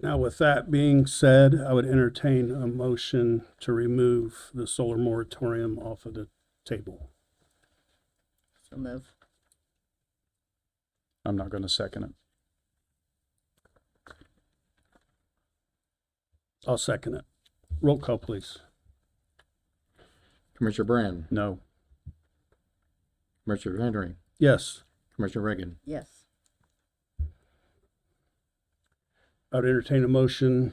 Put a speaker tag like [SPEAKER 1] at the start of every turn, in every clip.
[SPEAKER 1] Now, with that being said, I would entertain a motion to remove the solar moratorium off of the table.
[SPEAKER 2] So move.
[SPEAKER 3] I'm not going to second it.
[SPEAKER 1] I'll second it. Roll call, please.
[SPEAKER 4] Commissioner Brand,
[SPEAKER 3] No.
[SPEAKER 4] Commissioner Henry,
[SPEAKER 1] Yes,
[SPEAKER 4] Commissioner Reagan,
[SPEAKER 2] Yes.
[SPEAKER 1] I would entertain a motion.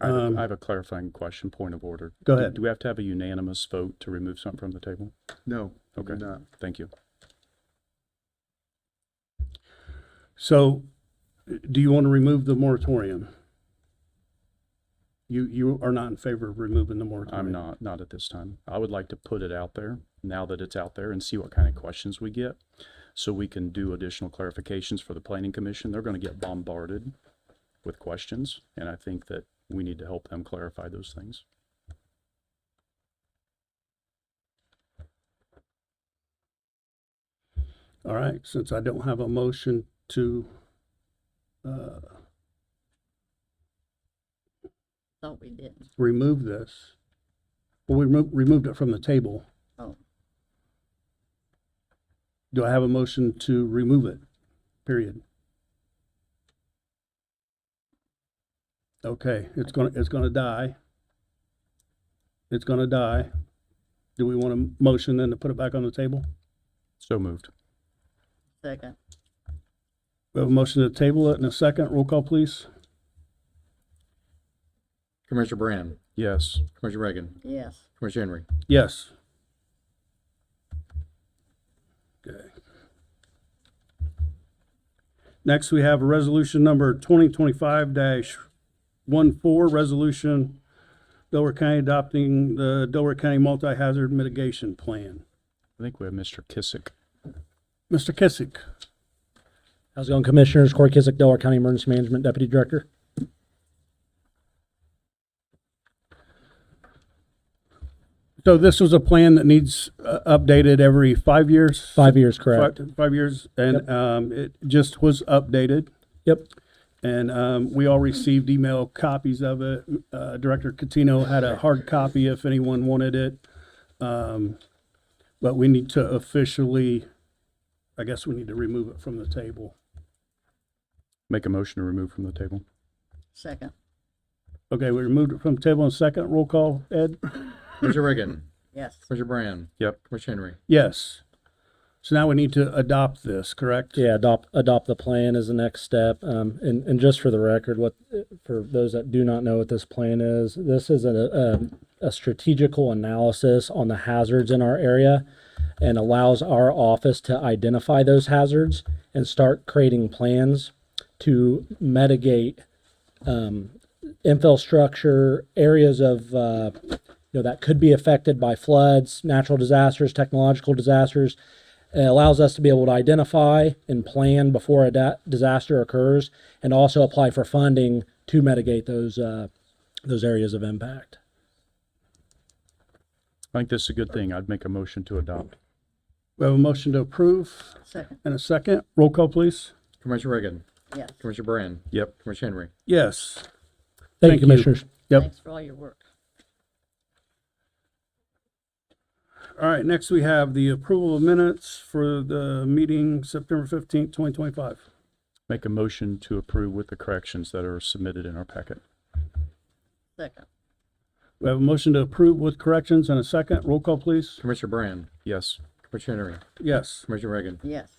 [SPEAKER 3] I have, a-
[SPEAKER 1] Um,
[SPEAKER 3] I have a clarifying question, point of order.
[SPEAKER 1] Go
[SPEAKER 3] Do-
[SPEAKER 1] ahead.
[SPEAKER 3] Do we have to have a unanimous vote to remove something from the table?
[SPEAKER 4] No.
[SPEAKER 3] Okay.
[SPEAKER 4] No.
[SPEAKER 3] Thank you.
[SPEAKER 1] So do you want to remove the moratorium? You, you are not in favor of removing the moratorium?
[SPEAKER 3] I'm not, not at this time. I would like to put it out there now that it's out there and see what kind of questions we get. So we can do additional clarifications for the planning commission. They're going to get bombarded with questions. And I think that we need to help them clarify those things.
[SPEAKER 1] All right, since I don't have a motion to, uh,
[SPEAKER 2] Thought we did.
[SPEAKER 1] remove this, well, we remo- removed it from the table.
[SPEAKER 2] Oh,
[SPEAKER 1] Do I have a motion to remove it? Period. Okay, it's gonna, it's gonna die. It's gonna die. Do we want a motion then to put it back on the table?
[SPEAKER 3] So moved.
[SPEAKER 2] second.
[SPEAKER 1] We have a motion to table it in a second. Roll call, please.
[SPEAKER 4] Commissioner Brand,
[SPEAKER 3] Yes.
[SPEAKER 4] Commissioner Reagan,
[SPEAKER 2] Yes.
[SPEAKER 4] Commissioner Henry,
[SPEAKER 1] Yes. Okay. Next, we have resolution number twenty twenty-five dash one four, resolution Delaware County adopting the Delaware County Multi-Hazard Mitigation Plan.
[SPEAKER 3] I think we have Mr. Kissick.
[SPEAKER 1] Mr. Kissick,
[SPEAKER 5] How's it going, Commissioners? Corey Kizik, Delaware County Emergency Management Deputy Director.
[SPEAKER 1] so this was a plan that needs uh, updated every five years?
[SPEAKER 5] Five years, correct?
[SPEAKER 1] Five- Five years, and, um, it just was updated.
[SPEAKER 5] Yep.
[SPEAKER 1] And um, we all received email copies of it. Uh, Director Catino had a hard copy if anyone wanted it. Um, But we need to officially, I guess we need to remove it from the table.
[SPEAKER 3] Make a motion to remove from the table.
[SPEAKER 2] Second.
[SPEAKER 1] Okay, we removed it from the table in second. Roll call, Ed?
[SPEAKER 4] Commissioner Reagan,
[SPEAKER 2] Yes.
[SPEAKER 4] Commissioner Brand,
[SPEAKER 3] Yep.
[SPEAKER 4] Commissioner Henry,
[SPEAKER 1] Yes. So now we need to adopt this, correct?
[SPEAKER 5] Yeah, adopt, adopt the plan is the next step. Um, and, and just for the record, what, for those that do not know what this plan is, this is a, a, a strategical analysis on the hazards in our area and allows our office to identify those hazards and start creating plans to mitigate um, infrastructure, areas of, uh, you know, that could be affected by floods, natural disasters, technological disasters. It allows us to be able to identify and plan before a da- disaster occurs and also apply for funding to mitigate those, uh, those areas of impact.
[SPEAKER 3] I think this is a good thing. I'd make a motion to adopt.
[SPEAKER 1] We have a motion to approve
[SPEAKER 2] Second.
[SPEAKER 1] and a second. Roll call, please.
[SPEAKER 4] Commissioner Reagan,
[SPEAKER 2] Yes.
[SPEAKER 4] Commissioner Brand,
[SPEAKER 3] Yep.
[SPEAKER 4] Commissioner Henry.
[SPEAKER 1] Yes.
[SPEAKER 5] Thank
[SPEAKER 1] Thank
[SPEAKER 5] you,
[SPEAKER 1] you.
[SPEAKER 5] Commissioners.
[SPEAKER 1] Yep.
[SPEAKER 2] Thanks for all your work.
[SPEAKER 1] All right, next we have the approval of minutes for the meeting September fifteenth, twenty twenty-five.
[SPEAKER 3] Make a motion to approve with the corrections that are submitted in our packet.
[SPEAKER 2] Second.
[SPEAKER 1] We have a motion to approve with corrections and a second. Roll call, please.
[SPEAKER 4] Commissioner Brand,
[SPEAKER 3] Yes.
[SPEAKER 4] Commissioner Henry,
[SPEAKER 1] Yes.
[SPEAKER 4] Commissioner Reagan,
[SPEAKER 2] Yes.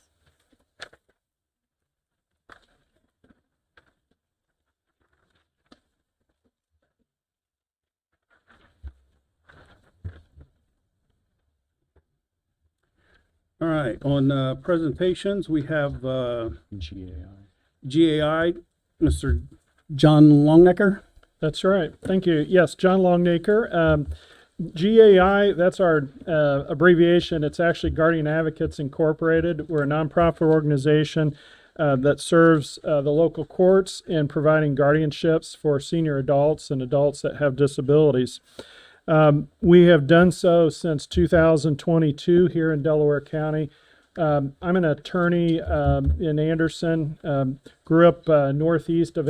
[SPEAKER 1] All right, on uh, presentations, we have uh,
[SPEAKER 3] GAI.
[SPEAKER 1] GAI, Mr. John Longnecker.
[SPEAKER 6] That's right. Thank you. Yes, John Longacre. Um, GAI, that's our uh, abbreviation. It's actually Guardian Advocates Incorporated. We're a nonprofit organization uh, that serves uh, the local courts in providing guardianships for senior adults and adults that have disabilities. Um, we have done so since 2022 here in Delaware County. Um, I'm an attorney um, in Anderson, um, grew up uh, northeast of